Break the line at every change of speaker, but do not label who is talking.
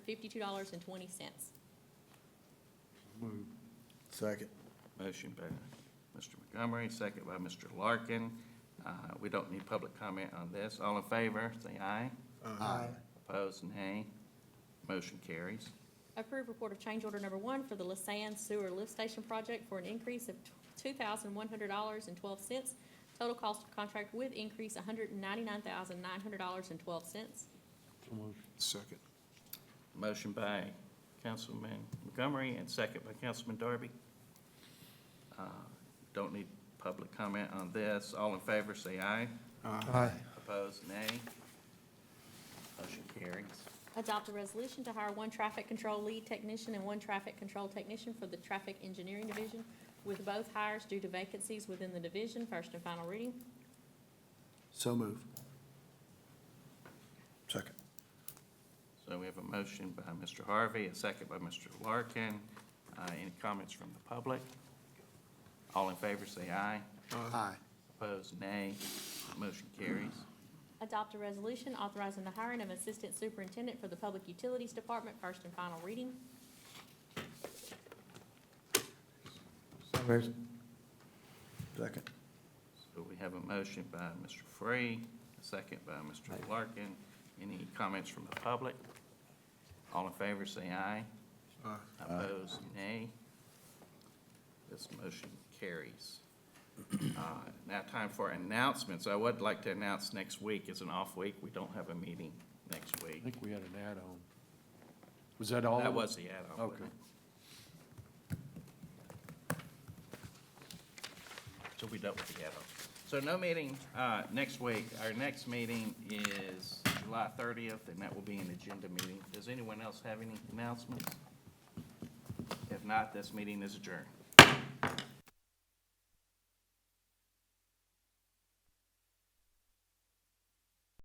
fifty-two dollars and twenty cents.
Move.
Second.
Motion by Mr. Montgomery, second by Mr. Larkin. Uh, We don't need public comment on this. All in favor, say aye.
Aye.
Opposed, nay. Motion carries.
Approve report of change order number one for the Lasan Sewer Lift Station Project for an increase of two thousand one hundred dollars and twelve cents. Total cost of contract with increase hundred and ninety-nine thousand nine hundred dollars and twelve cents.
So moved.
Second.
Motion by Councilman Montgomery and second by Councilman Darby. Uh, Don't need public comment on this. All in favor, say aye.
Aye.
Opposed, nay. Motion carries.
Adopt a resolution to hire one traffic control lead technician and one traffic control technician for the Traffic Engineering Division, with both hires due to vacancies within the division. First and final reading.
So move. Second.
So we have a motion by Mr. Harvey, a second by Mr. Larkin. Uh, Any comments from the public? All in favor, say aye.
Aye.
Opposed, nay. Motion carries.
Adopt a resolution authorizing the hiring of Assistant Superintendent for the Public Utilities Department. First and final reading.
So moved. Second.
So we have a motion by Mr. Free, a second by Mr. Larkin. Any comments from the public? All in favor, say aye. Opposed, nay. This motion carries. Uh, Now time for announcements. I would like to announce next week is an off week. We don't have a meeting next
I
week.
think we had an add-on. Was that all?
That was the add-on.
Okay.
wasn't it? So we dealt with the add-on. So no meeting uh, next week. Our next meeting is July 30th, and that will be an agenda meeting. Does anyone else have any announcements? If not, this meeting is adjourned.